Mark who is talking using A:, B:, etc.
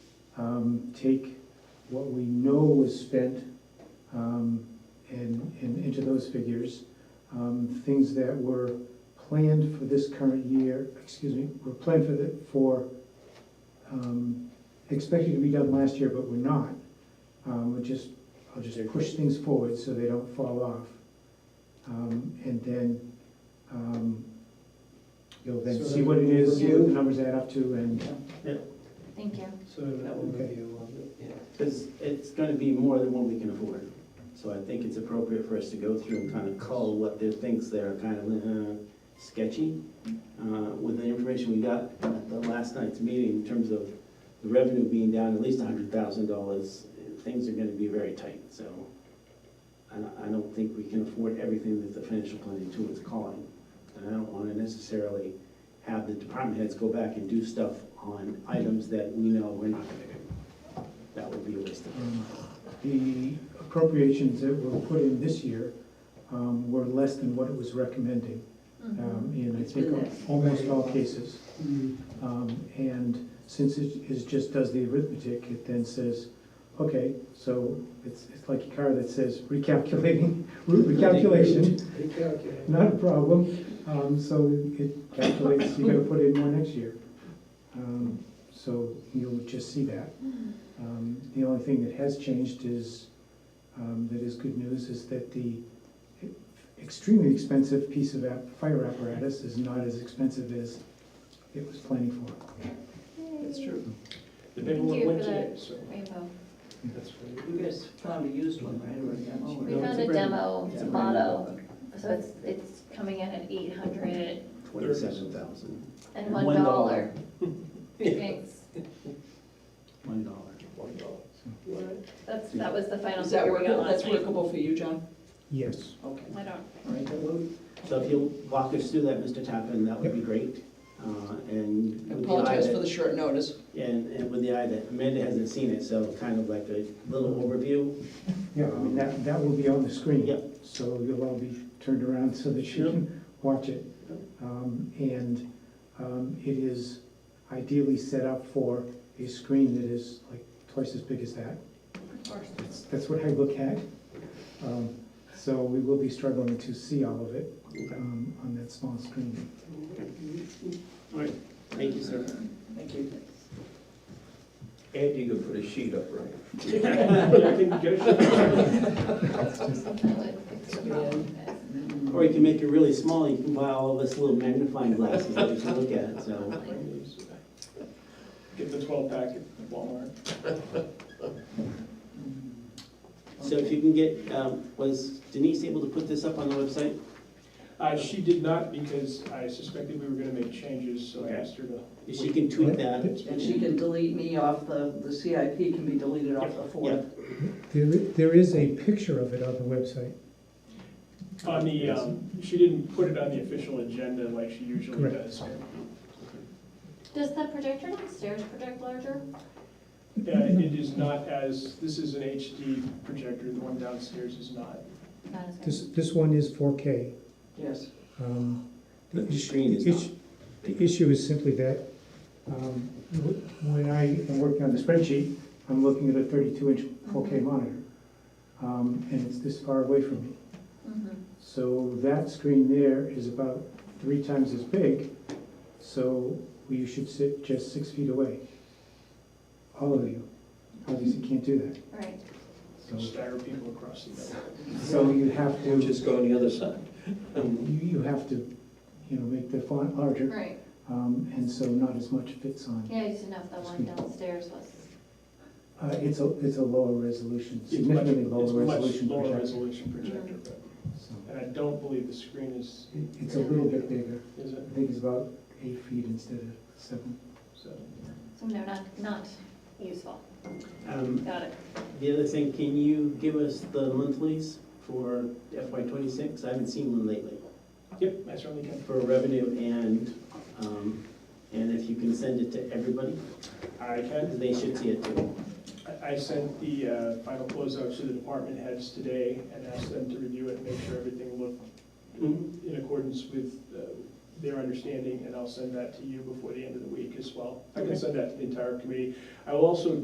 A: um, take what we know was spent um, and, and into those figures. Um, Things that were planned for this current year, excuse me, were planned for the, for, um, expected to be done last year, but were not. Um, I'll just, I'll just push things forward so they don't fall off. Um, And then, um, you'll then
B: So
A: see what it is,
B: review.
A: what the numbers add up to, and
C: Thank you.
B: So that will
A: Okay.
B: review of it.
D: Because it's gonna be more than what we can afford. So I think it's appropriate for us to go through and kind of cull what there things that are kind of uh, sketchy. Uh, With the information we got at the last night's meeting in terms of the revenue being down at least hundred thousand dollars, things are gonna be very tight, so. I, don't- I don't think we can afford everything that the financial planning tool is calling. And I don't wanna necessarily have the department heads go back and do stuff on items that we know we're not gonna do. That would be a waste of
A: Um, The appropriations that were put in this year um, were less than what it was recommending,
C: Mm-hmm.
A: um, in I
C: It's
A: think
C: been
A: almost
B: very
A: all
B: low.
A: cases. Um, And since it is just does the arithmetic, it then says, okay, so it's, it's like a car that says recalculating, root recalculation,
B: Recalculate.
A: not a problem. Um, So it calculates, you gotta put in more next year. Um, So you'll just see that. Um, The only thing that has changed is, um, that is good news, is that the extremely expensive piece of app- fire apparatus is not as expensive as it was planning for.
D: That's true.
E: The
C: Thank
E: big
C: you
E: one went
C: for
E: today,
C: that.
E: so
C: Rainbow.
B: That's
E: that's what it-
B: right.
F: You guys found a used one, right, or a demo?
C: We
F: or-
C: found a demo,
F: It's
C: it's
F: a
C: a
F: brand
C: motto,
F: new
C: so it's, it's coming in at eight hundred
D: Twenty-seven thousand.
C: and one
D: One
C: dollar.
D: dollar.
C: Thanks.
D: One dollar.
E: one dollar.
F: one.
C: That's, that was the final
F: Is that
C: figure we got
F: workable,
C: last
F: that's
C: night.
F: workable for you, John?
A: Yes.
F: Okay.
C: I don't,
F: All right, then we'll-
D: So if you'll walk us through that, Mr. Tappan, that would be great. Uh, And
F: I
D: with the eye
F: apologize for
D: that,
F: the short notice.
D: and, and with the eye that Amanda hasn't seen it, so kind of like a little overview.
A: Yeah, I mean, that, that will be on the screen.
D: Yep.
A: So you'll all be turned around so that you
D: Yep.
A: can watch it.
D: Yep.
A: Um, And um, it is ideally set up for a screen that is like twice as big as that. That's- That's what I look at. Um, So we will be struggling to see all of it
D: Okay.
A: um, on that small screen.
D: All right, thank you, sir.
F: Thank you.
E: And you can put a sheet up, right?
C: that would fix the problem.
D: Or you can make it really small, you can buy all of us little magnifying glasses that you can look at, it. so.
E: Get the twelve pack at Walmart.
D: So if you can get, um, was Denise able to put this up on the website?
E: Uh, she did not because I suspected we were gonna make changes, so I
D: Okay.
E: asked her to.
D: If she can tweet that.
F: And she can delete me off the, the CIP can be deleted off the
D: Yeah,
F: fourth.
A: There, there is a picture of it on the website.
E: On the, um, she didn't put it on the official agenda like she usually
A: Correct.
E: does.
C: Does the projector downstairs project larger?
E: Yeah, it is not as, this is an HD projector, the one downstairs is not.
C: Not as
G: This,
C: good.
G: this one is 4K.
F: Yes.
G: Um,
D: The
G: issue-
D: screen is
G: the
D: not.
G: issue- The issue is simply that um, wh- when I,
A: I'm working on the spreadsheet, I'm looking at a thirty-two inch four K monitor. Um, and it's this far away from me.
C: Mhm.
A: So that screen there is about three times as big, so you should sit just six feet away. All of you, obviously can't do that.
C: Right,
A: So,
E: Stagger people across the middle.
A: so you have to, you,
H: Just go on the other side.
A: you have to, you know, make the font larger,
C: right.
A: um, and so not as much fits on.
C: Yeah, I just didn't know if the one downstairs was.
A: Uh, it's a, it's a lower resolution,
E: It's much-
A: significantly lower
E: It's
A: resolution
E: much lower
A: projector.
E: resolution projector, but,
A: So
E: and I don't believe the screen is,
A: it- It's a little bit bigger.
E: is it?
A: I think it's about eight feet instead of seven.
E: So,
C: So no, not, not useful.
D: Um,
C: Got it.
D: The other thing, can you give us the monthlies for FY twenty-six? I haven't seen one lately.
E: Yep, I certainly can.
D: For revenue and, um, and if you can send it to everybody,
E: I can.
D: they should see it too.
E: I- I sent the uh, final closeout to the department heads today and asked them to review it, and make sure everything looked
D: Mhm.
E: in accordance with uh, their understanding, and I'll send that to you before the end of the week as well. I
D: Okay.
E: can send that to the entire committee. I will also